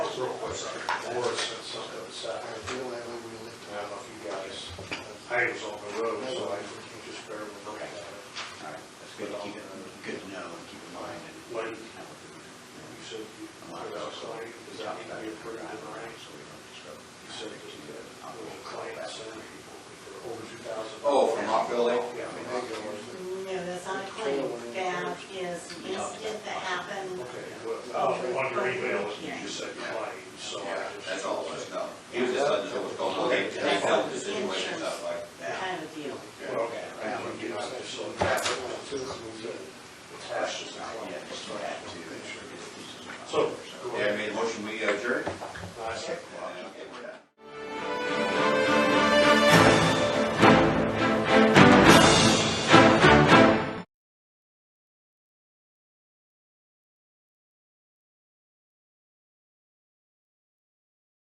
Oh, Morris said something at the side. I don't know if you guys, I was on the road, so I just barely looked at it. All right, that's good to keep it, good to know and keep in mind Like- and. Now we're doing it. You said you, I'm not put out somebody, does that need to be approved in writing? So we don't disrupt. You said that you had a little client center people for over two thousand. Oh, from Rockville? Yeah, I mean, they go, okay, No, that's not a claim. That is an incident that happened. Uh, well, on your email, you just said client.